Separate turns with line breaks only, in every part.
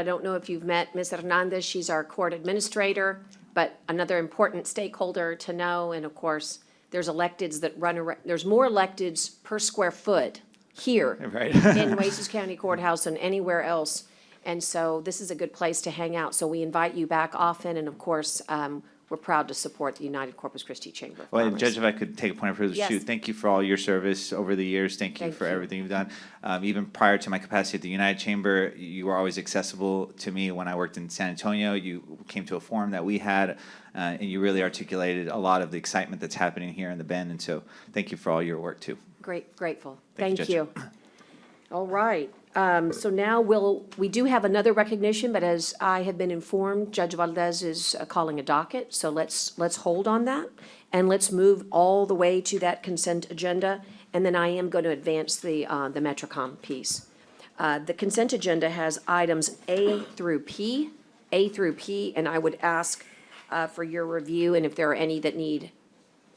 I don't know if you've met Ms. Hernandez, she's our court administrator, but another important stakeholder to know, and of course, there's electeds that run around, there's more electeds per square foot here
Right.
in Oasis County Courthouse than anywhere else, and so this is a good place to hang out, so we invite you back often, and of course, um, we're proud to support the United Corpus Christi Chamber of
Well, and
Commerce.
Judge, if I could take a point of privilege
Yes.
too, thank you for all your service over the years. Thank you
Thank
for
you.
everything you've done. Um, even prior to my capacity at the United Chamber, you were always accessible to me when I worked in San Antonio. You came to a forum that we had, uh, and you really articulated a lot of the excitement that's happening here in the Bend. And so, thank you for all your work too.
Great, grateful.
Thank you,
Thank you. All right. Um, So now we'll, we do have another recognition, but as I have been informed, Judge Valdez is uh, calling a docket. So let's, let's hold on that and let's move all the way to that consent agenda. And then I am going to advance the, uh, the Metrocom piece. Uh, The consent agenda has items A through P, A through P, and I would ask uh, for your review and if there are any that need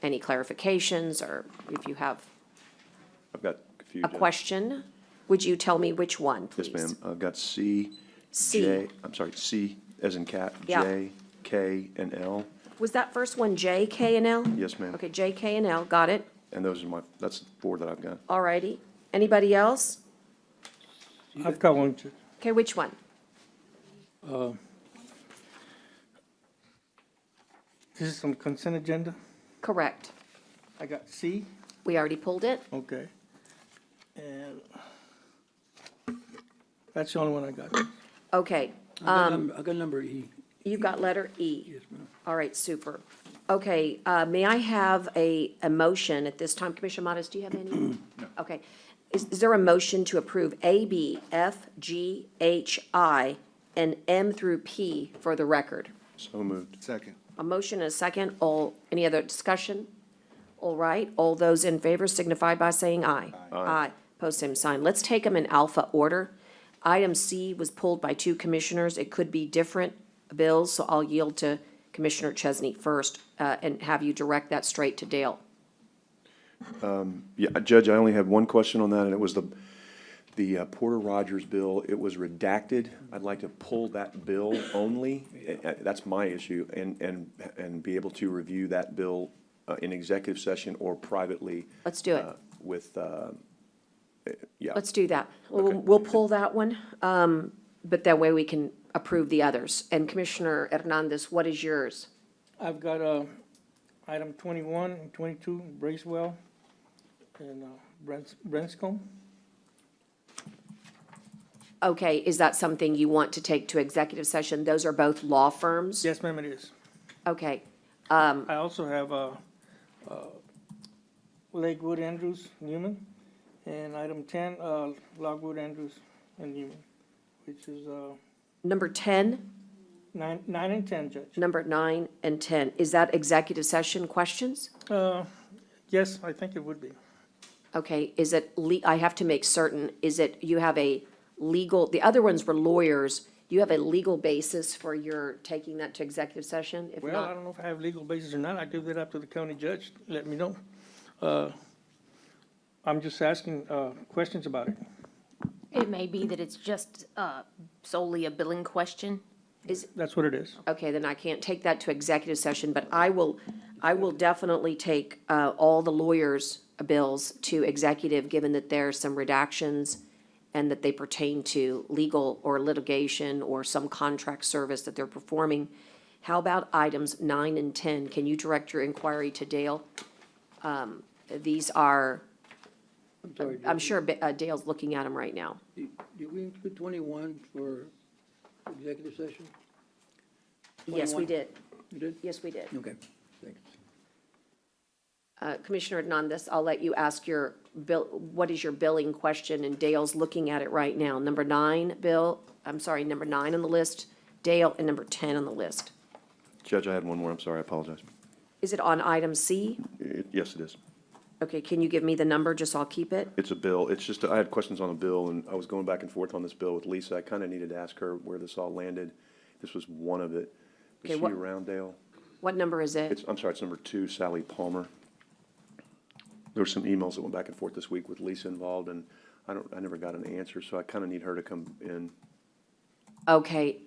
any clarifications or if you have
I've got a few.
a
Jen.
question, would you tell me which one, please?
Yes, ma'am. I've got C,
C.
J, I'm sorry, C as in cat,
Yeah.
J, K, and L.
Was that first one J, K, and L?
Yes, ma'am.
Okay, J, K, and L, got it.
And those are my, that's the four that I've got.
All righty. Anybody else?
I've got one. too.
Okay, which one?
This is some consent agenda.
Correct.
I got C,
We already pulled it?
okay. And that's the only one I got.
Okay,
I got number- I got number E.
you got letter E.
Yes, ma'am.
All right, super. Okay, uh, may I have a, a motion at this time? Commissioner Modas, do you have any? No. Okay. Is, is there a motion to approve A, B, F, G, H, I, and M through P for the record?
So moved.
Second.
A motion and a second. All, any other discussion? All right, all those in favor signify by saying aye. Aye. Post same sign. Let's take them in alpha order. Item C was pulled by two commissioners. It could be different bills, so I'll yield to Commissioner Chesney first, uh, and have you direct that straight to Dale.
Yeah, uh, Judge, I only had one question on that, and it was the, the uh, Porter Rogers bill. It was redacted. I'd like to pull that bill only. Uh, uh, That's my issue, and, and, and be able to review that bill uh, in executive session or privately.
Let's do it.
uh, With, uh, yeah.
Let's do that. We'll, we'll pull that one, um, but that way we can approve the others. And Commissioner Hernandez, what is yours?
I've got, uh, item twenty-one and twenty-two, Bracewell and, uh, Brens- Brenscombe.
Okay, is that something you want to take to executive session? Those are both law firms?
Yes, ma'am, it is.
Okay,
I also have, uh, uh, Lakewood Andrews Newman, and item ten, uh, Lockwood Andrews and Newman, which is, uh,
number 10,
nine, nine and ten, Judge.
number 9, and 10. Is that executive session questions?
Uh, yes, I think it would be.
Okay, is it, le- I have to make certain, is it, you have a legal, the other ones were lawyers, you have a legal basis for your taking that to executive session? If
Well, I
not,
don't know if I have legal basis or not. I give that up to the county judge. Let me know. Uh, I'm just asking uh, questions about it.
It may be that it's just uh, solely a billing question.
That's what it is.
okay, then I can't take that to executive session, but I will, I will definitely take uh, all the lawyers' bills to executive, given that there are some redactions and that they pertain to legal or litigation or some contract service that they're performing. How about items nine and 10? Can you direct your inquiry to Dale? Um, These are, I'm sure Ba- uh, Dale's looking at them right now.
Did we include twenty-one for executive session?
Yes, we
21.
did.
You did?
Yes, we did.
Okay, thanks.
Uh, Commissioner Hernandez, I'll let you ask your bill, what is your billing question? And Dale's looking at it right now. Number nine, Bill, I'm sorry, number nine on the list, Dale, and number 10 on the list.
Judge, I had one more. I'm sorry. I apologize.
Is it on item C?
It- Yes, it is.
Okay, can you give me the number, just so I'll keep it?
It's a bill. It's just, I had questions on a bill, and I was going back and forth on this bill with Lisa. I kind of needed to ask her where this all landed. This was one of it. Is
Okay,
she
what-
around, Dale?
What number is it?
It's, I'm sorry, it's number two, Sally Palmer. There were some emails that went back and forth this week with Lisa involved, and I don't, I never got an answer, so I kind of need her to come in.
Okay,